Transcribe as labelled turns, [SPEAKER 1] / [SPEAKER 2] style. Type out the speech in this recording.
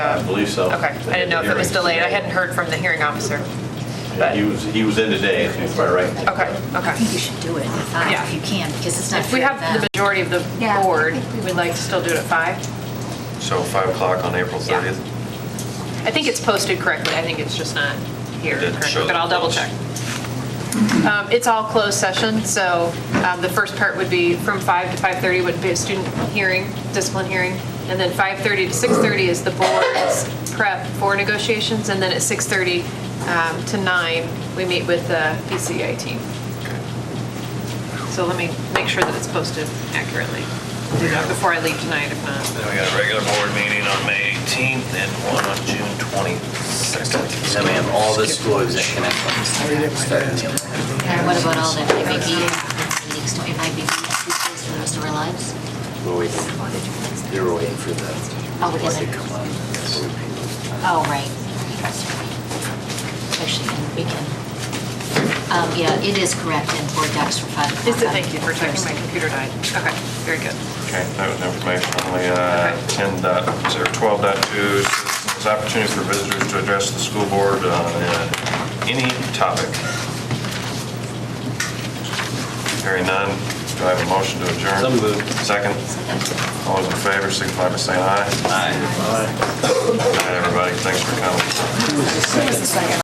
[SPEAKER 1] I believe so.
[SPEAKER 2] Okay, I didn't know if it was delayed. I hadn't heard from the hearing officer. but-
[SPEAKER 1] He was, he was in today, if he's quite right.
[SPEAKER 2] Okay,
[SPEAKER 3] I
[SPEAKER 2] okay.
[SPEAKER 3] think you should do it at five
[SPEAKER 2] Yeah.
[SPEAKER 3] if you can, because it's not
[SPEAKER 2] If we
[SPEAKER 3] fair to
[SPEAKER 2] have the
[SPEAKER 3] them.
[SPEAKER 2] majority of the
[SPEAKER 3] Yeah, I
[SPEAKER 2] board,
[SPEAKER 3] think we
[SPEAKER 2] we'd like to still do it at five.
[SPEAKER 4] So 5 o'clock on April
[SPEAKER 2] Yeah.
[SPEAKER 4] 30th?
[SPEAKER 2] I think it's posted correctly. I think it's just not here
[SPEAKER 4] It
[SPEAKER 2] currently,
[SPEAKER 4] shows
[SPEAKER 2] but I'll double
[SPEAKER 4] closed.
[SPEAKER 2] check. Um, It's all closed session, so um, the first part would be from five to 5:30 would be a student hearing, discipline hearing, and then 5:30 to 6:30 is the board's prep for negotiations, and then at 6:30 um, to nine we meet with the BCI team. So let me make sure that it's posted accurately. I'll Do that before I leave tonight, if not.
[SPEAKER 4] Then we got a regular board meeting on May 18th and one on June 22nd.
[SPEAKER 5] Then we have all the school exec connections.
[SPEAKER 3] And what about all that might be meetings, don't we might be Tuesdays for the rest of our lives?
[SPEAKER 5] We're waiting, they were waiting for the
[SPEAKER 3] Oh, it
[SPEAKER 5] light to
[SPEAKER 3] isn't.
[SPEAKER 5] come on. So we-
[SPEAKER 3] Oh, right. Actually, and we can, um, yeah, it is correct, and board docs for five o'clock.
[SPEAKER 2] Is it,
[SPEAKER 3] on
[SPEAKER 2] thank you for checking, my
[SPEAKER 3] Thursday.
[SPEAKER 2] computer died. Okay, very good.
[SPEAKER 4] Okay, that was information only, uh, 10 dot, is there 12 dot 2, citizens' opportunity for visitors to address the school board on uh, any topic. Hearing none, do I have a motion to adjourn?
[SPEAKER 5] So moved.
[SPEAKER 4] Second, all those in favor, signify by saying aye.
[SPEAKER 5] Aye.
[SPEAKER 4] Aye, everybody, thanks for coming.